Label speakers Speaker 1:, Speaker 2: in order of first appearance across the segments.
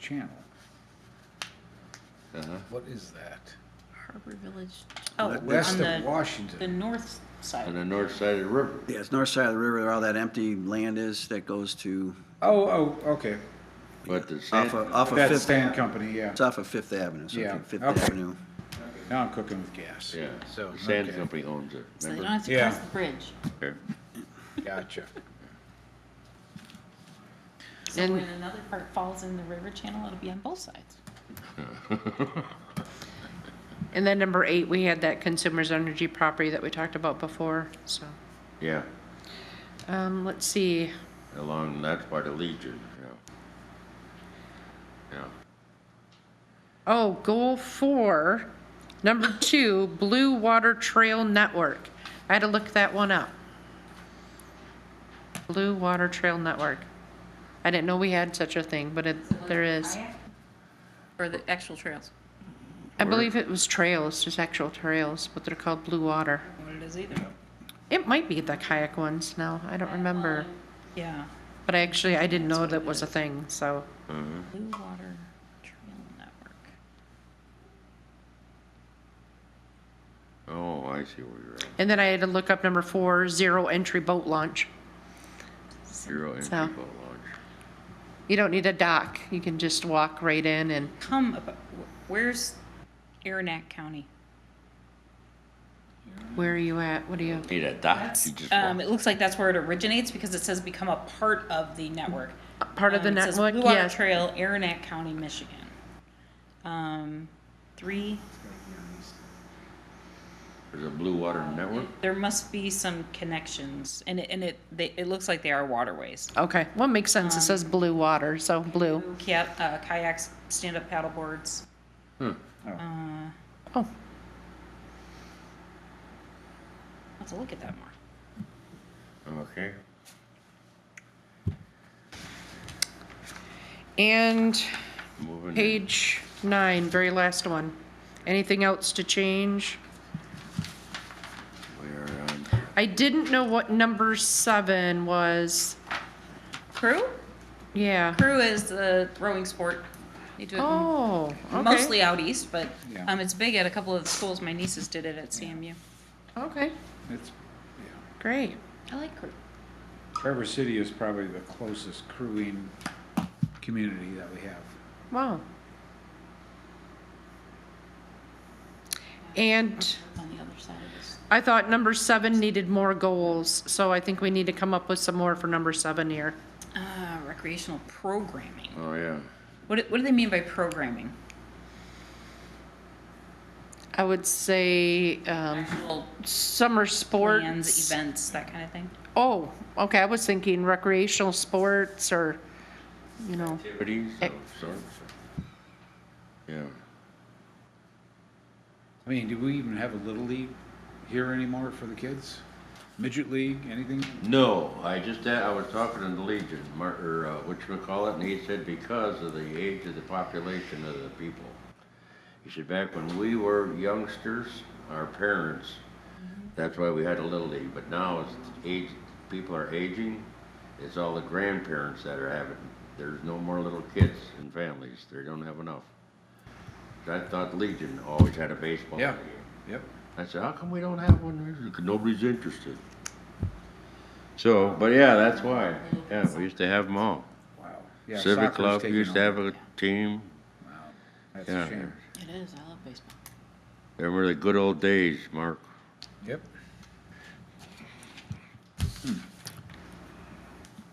Speaker 1: channel.
Speaker 2: Uh-huh.
Speaker 1: What is that?
Speaker 3: Harbor Village, oh, on
Speaker 1: West of
Speaker 3: the, the
Speaker 1: Washington.
Speaker 3: north
Speaker 2: On
Speaker 3: side.
Speaker 2: the north side of the river.
Speaker 4: Yeah, it's north side of the river, where all that empty land is that goes to,
Speaker 1: Oh, oh, okay.
Speaker 2: But the sand,
Speaker 4: off of, off of
Speaker 1: That's
Speaker 4: Fifth,
Speaker 1: Stan Company, yeah.
Speaker 4: it's off of Fifth Avenue, so if
Speaker 1: Yeah,
Speaker 4: you- Fifth
Speaker 1: okay.
Speaker 4: Avenue.
Speaker 1: Now I'm cooking with gas.
Speaker 2: yeah,
Speaker 1: So,
Speaker 2: the sand
Speaker 1: okay.
Speaker 2: company owns it.
Speaker 3: So they don't
Speaker 2: remember?
Speaker 3: have to
Speaker 1: Yeah.
Speaker 3: cross the bridge.
Speaker 1: Gotcha.
Speaker 3: So when another part falls in the river channel, it'll be on both sides.
Speaker 5: And then number eight, we had that consumer's energy property that we talked about before, so.
Speaker 2: Yeah,
Speaker 5: Um, let's see,
Speaker 2: along that part of Legion. Yeah.
Speaker 5: oh, goal four, number two, Blue Water Trail Network. I had to look that one up. Blue Water Trail Network. I didn't know we had such a thing, but it, there is.
Speaker 3: Or the actual trails.
Speaker 5: I believe it was trails, just actual trails, but they're called Blue Water.
Speaker 3: What it is either.
Speaker 5: It might be the kayak ones now, I don't remember.
Speaker 3: Yeah.
Speaker 5: But I actually, I didn't know that was a thing, so.
Speaker 3: Blue Water Trail Network.
Speaker 2: Yeah. Oh, I see where you're at.
Speaker 5: And then I had to look up number four, zero entry boat launch.
Speaker 2: Zero entry
Speaker 5: So-
Speaker 2: boat launch.
Speaker 5: You don't need a dock. You can just walk right in and
Speaker 3: Come, abo- wh- where's Aranac County?
Speaker 5: where are you at? What do you?
Speaker 2: Need a dock. You just
Speaker 3: Um,
Speaker 2: walk.
Speaker 3: it looks like that's where it originates because it says become a part of the network.
Speaker 5: Part of the
Speaker 3: Um, it says
Speaker 5: network?
Speaker 3: Blue Water
Speaker 5: Yes.
Speaker 3: Trail, Aranac County, Michigan. Um, three,
Speaker 2: There's a Blue Water Network.
Speaker 3: there must be some connections and it, and it, they, it looks like they are waterways.
Speaker 5: Okay, well, it makes
Speaker 3: Um,
Speaker 5: sense. It says blue water, so blue.
Speaker 3: Kayak, uh, kayaks, stand-up paddle boards.
Speaker 5: Oh,
Speaker 3: I'll have to look at that more.
Speaker 2: Okay.
Speaker 5: and
Speaker 2: Moving.
Speaker 5: page nine, very last one. Anything else to change?
Speaker 2: We are on.
Speaker 5: I didn't know what number seven was.
Speaker 3: Crew?
Speaker 5: Yeah.
Speaker 3: Crew is the rowing sport. They do it m-
Speaker 5: Oh, okay.
Speaker 3: mostly out east, but,
Speaker 1: Yeah.
Speaker 3: um, it's big at a couple of the schools. My nieces did it at CMU.
Speaker 5: Okay,
Speaker 1: It's, yeah.
Speaker 5: great.
Speaker 3: I like crew.
Speaker 1: Traverse City is probably the closest crewing community that we have.
Speaker 5: Wow. And
Speaker 3: on the other side of this.
Speaker 5: I thought number seven needed more goals, so I think we need to come up with some more for number seven here.
Speaker 3: Uh, recreational programming.
Speaker 2: Oh yeah.
Speaker 3: What, do- what do they mean by programming?
Speaker 5: I would say, um,
Speaker 3: Actual
Speaker 5: summer
Speaker 3: plans,
Speaker 5: sports.
Speaker 3: events, that kind of thing?
Speaker 5: Oh, okay, I was thinking recreational sports or, you know,
Speaker 2: Activities of
Speaker 5: Ac-
Speaker 2: sorts. Yeah.
Speaker 1: I mean, do we even have a little league here anymore for the kids? Midget league, anything?
Speaker 2: No, I just uh, I was talking to the Legion, Mar- or uh, what you call it, and he said because of the age of the population of the people. He said back when we were youngsters, our parents, that's why we had a little league. But now as age people are aging, it's all the grandparents that are having. There's no more little kids and families. They don't have enough. I thought Legion always had a baseball
Speaker 1: Yeah,
Speaker 2: league.
Speaker 1: yep.
Speaker 2: I said, how come we don't have one? Nobody's interested. So, but yeah, that's why. Yeah, we used to have them all.
Speaker 1: Wow. Yeah,
Speaker 2: Civic
Speaker 1: soccer's
Speaker 2: Club
Speaker 1: taken
Speaker 2: used to have
Speaker 1: over.
Speaker 2: a team.
Speaker 1: That's
Speaker 2: yeah.
Speaker 1: a shame.
Speaker 3: It is, I love baseball.
Speaker 2: They were the good old days, Mark.
Speaker 1: Yep.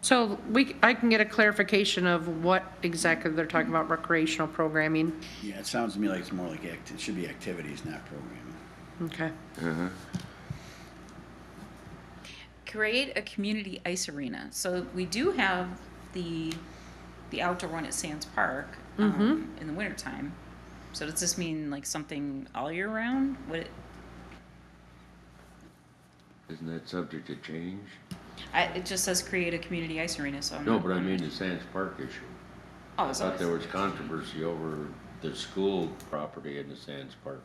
Speaker 5: so we, I can get a clarification of what exactly they're talking about recreational programming.
Speaker 4: Yeah, it sounds to me like it's more like, act- it should be activities, not programming.
Speaker 5: Okay.
Speaker 2: Uh-huh.
Speaker 3: Create a community ice arena. So we do have the, the outdoor one at Sands Park, um, in the wintertime. So does this mean like something all year round? Would it,
Speaker 2: Isn't that subject to change?
Speaker 3: I, it just says create a community ice arena, so I'm.
Speaker 2: No,
Speaker 3: not-
Speaker 2: but I mean the Sands Park issue.
Speaker 3: Oh,
Speaker 2: I
Speaker 3: it's
Speaker 2: thought there
Speaker 3: always-
Speaker 2: was controversy over the school property in the Sands Park.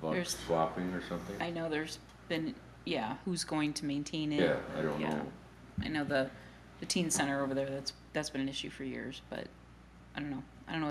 Speaker 2: About
Speaker 3: There's-
Speaker 2: swapping or something?
Speaker 3: I know there's been, yeah, who's going to maintain it?
Speaker 2: Yeah, I don't
Speaker 3: Yeah.
Speaker 2: know.
Speaker 3: I know the, the teen center over there, that's, that's been an issue for years, but I don't know.